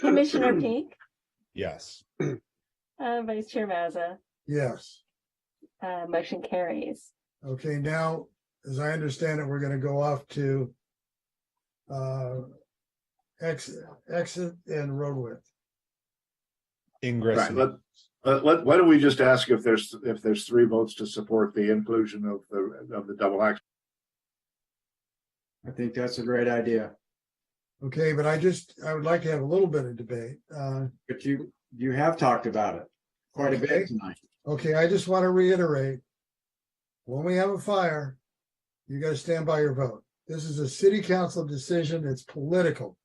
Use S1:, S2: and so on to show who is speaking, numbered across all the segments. S1: Commissioner Peak,
S2: Yes.
S1: uh, Vice Chair Mazza,
S3: Yes.
S1: uh, motion carries.
S3: Okay, now, as I understand it, we're gonna go off to uh, ex, exit and road width.
S2: Ingress.
S4: Right,
S2: and-
S4: let, let, let- why don't we just ask if there's, if there's three votes to support the inclusion of the, of the double action?
S5: I think that's a great idea.
S3: Okay, but I just, I would like to have a little bit of debate. Uh,
S5: But you, you have talked about it quite a
S3: Okay.
S5: bit tonight.
S3: okay, I just want to reiterate. When we have a fire, you gotta stand by your vote. This is a city council decision. It's political.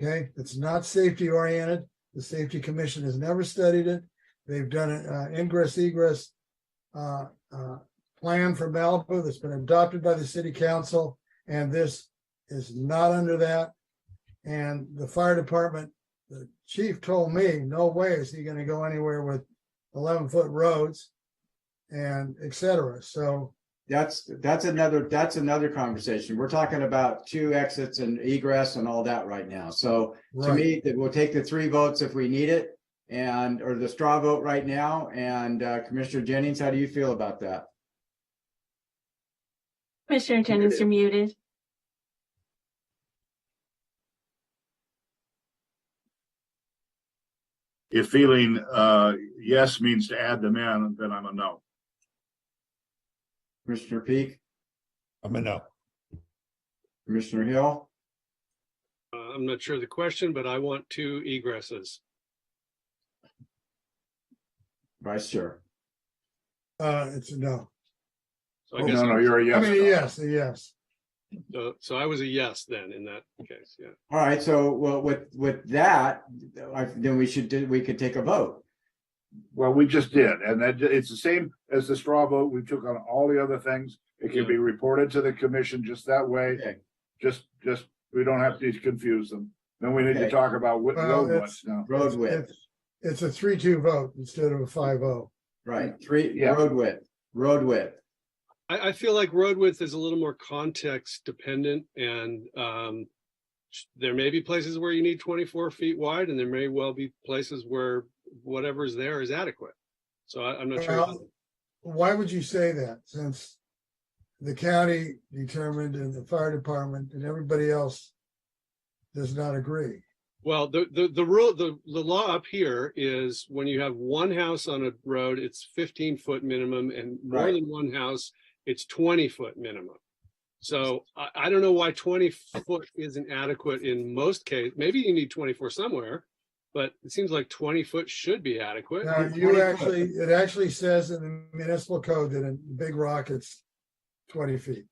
S3: Okay, it's not safety oriented. The safety commission has never studied it. They've done an uh, ingress egress uh, uh, plan for Malibu that's been adopted by the city council, and this is not under that. And the fire department, the chief told me, no way is he going to go anywhere with eleven foot roads, and et cetera. So
S5: That's, that's another, that's another conversation. We're talking about two exits and egress and all that right now. So to
S3: right.
S5: me, that we'll take the three votes if we need it and, or the straw vote right now. And uh, Commissioner Jennings, how do you feel about that?
S1: Commissioner Jennings, you're muted.
S4: If feeling, uh, yes means to add them in, then I'm a no.
S5: Commissioner Peak,
S2: I'm a no.
S5: Commissioner Hill,
S6: Uh, I'm not sure of the question, but I want two egresses.
S5: Vice Chair.
S3: Uh, it's a no.
S6: So I
S4: No,
S6: guess,
S4: Oh, no, you're a
S3: I
S4: yes.
S3: mean, a yes, a yes.
S6: so- so I was a yes then in that case, yeah.
S5: All right, so well, with, with that, I- then we should, do we could take a vote.
S4: Well, we just did, and that, it's the same as the straw vote. We took on all the other things. It can
S6: Yeah.
S4: be reported to the commission just that way.
S5: Okay.
S4: Just, just, we don't have to confuse them. Then we need to
S5: Okay.
S4: talk about what
S3: Well,
S4: road
S3: it's-
S4: width now.
S5: Road width,
S3: It's a three two vote instead of a five oh.
S5: right, three,
S4: Yeah.
S5: road width, road width.
S6: I, I feel like road width is a little more context dependent and, um, there may be places where you need twenty-four feet wide and there may well be places where whatever's there is adequate. So I, I'm not sure.
S3: Well, Why would you say that since the county determined and the fire department and everybody else does not agree?
S6: Well, the, the, the rule, the, the law up here is when you have one house on a road, it's fifteen foot minimum and more
S5: Right.
S6: than one house, it's twenty foot minimum. So I, I don't know why twenty foot isn't adequate in most cases. Maybe you need twenty-four somewhere, but it seems like twenty foot should be adequate.
S3: Now, you actually, it actually says in the municipal code that in Big Rock, it's twenty feet.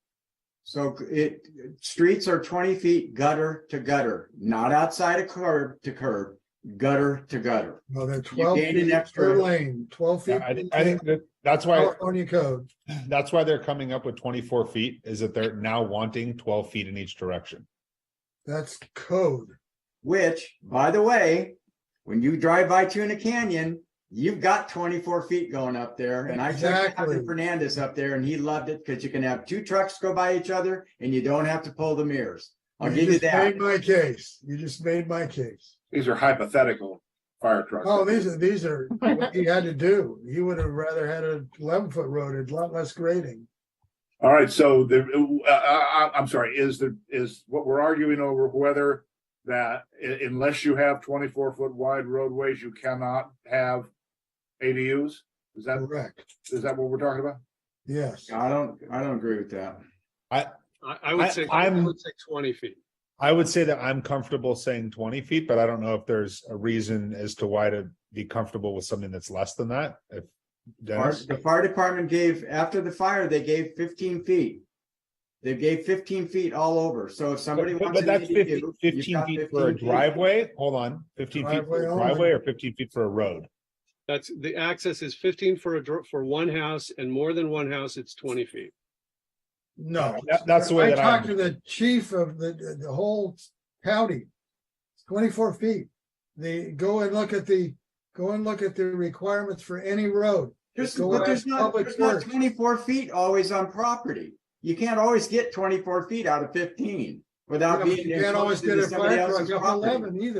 S5: So it, streets are twenty feet gutter to gutter, not outside of curb to curb, gutter to gutter.
S3: Well, that twelve
S5: gained an
S3: feet per
S5: extra-
S3: lane, twelve feet.
S2: I,
S3: per
S2: I
S3: lane,
S2: think that, that's why,
S3: California code.
S2: that's why they're coming up with twenty-four feet, is that they're now wanting twelve feet in each direction.
S3: That's code.
S5: Which, by the way, when you drive by Tuna Canyon, you've got twenty-four feet going up there. And I took
S3: Exactly.
S5: Captain Fernandez up there and he loved it because you can have two trucks go by each other and you don't have to pull the mirrors. I'll give you
S3: just
S5: that.
S3: Made my case. You just made my case.
S4: These are hypothetical fire trucks.
S3: Oh, these are, these are what he had to do. He would have rather had a eleven foot road, a lot less grading.
S4: All right, so the, uh, I, I'm sorry, is the, is what we're arguing over whether that i- unless you have twenty-four foot wide roadways, you cannot have ADUs? Is that,
S3: Correct.
S4: is that what we're talking about?
S3: Yes.
S5: I don't, I don't agree with that.
S6: I, I would
S2: I-
S6: say, I
S2: I'm-
S6: would say twenty feet.
S2: I would say that I'm comfortable saying twenty feet, but I don't know if there's a reason as to why to be comfortable with something that's less than that. If
S5: Fire-
S2: Dennis,
S5: The fire department gave, after the fire, they gave fifteen feet. They gave fifteen feet all over, so if somebody
S2: but but-
S5: wants.
S2: but
S5: an
S2: that's 50
S5: ADU,
S2: fifteen
S5: you've got
S2: feet for a
S5: 15 feet.
S2: driveway, hold on, fifteen feet for
S3: Driveway
S2: a
S3: only.
S2: driveway or fifteen feet for a road?
S6: That's, the access is fifteen for a, dr- for one house and more than one house, it's twenty feet.
S3: No.
S2: That- that's the way
S3: I
S2: that I
S3: talked to the chief of the, the whole county. Twenty-four feet. They go and look at the, go and look at the requirements for any road.
S5: There's,
S3: Go
S5: but there's
S3: ask
S5: not,
S3: public
S5: there's not
S3: works.
S5: twenty-four feet always on property. You can't always get twenty-four feet out of fifteen without being.
S3: You can't always
S5: encroaching
S3: get
S5: into
S3: a
S5: somebody
S3: fire
S5: else's
S3: truck up
S5: property.
S3: eleven either.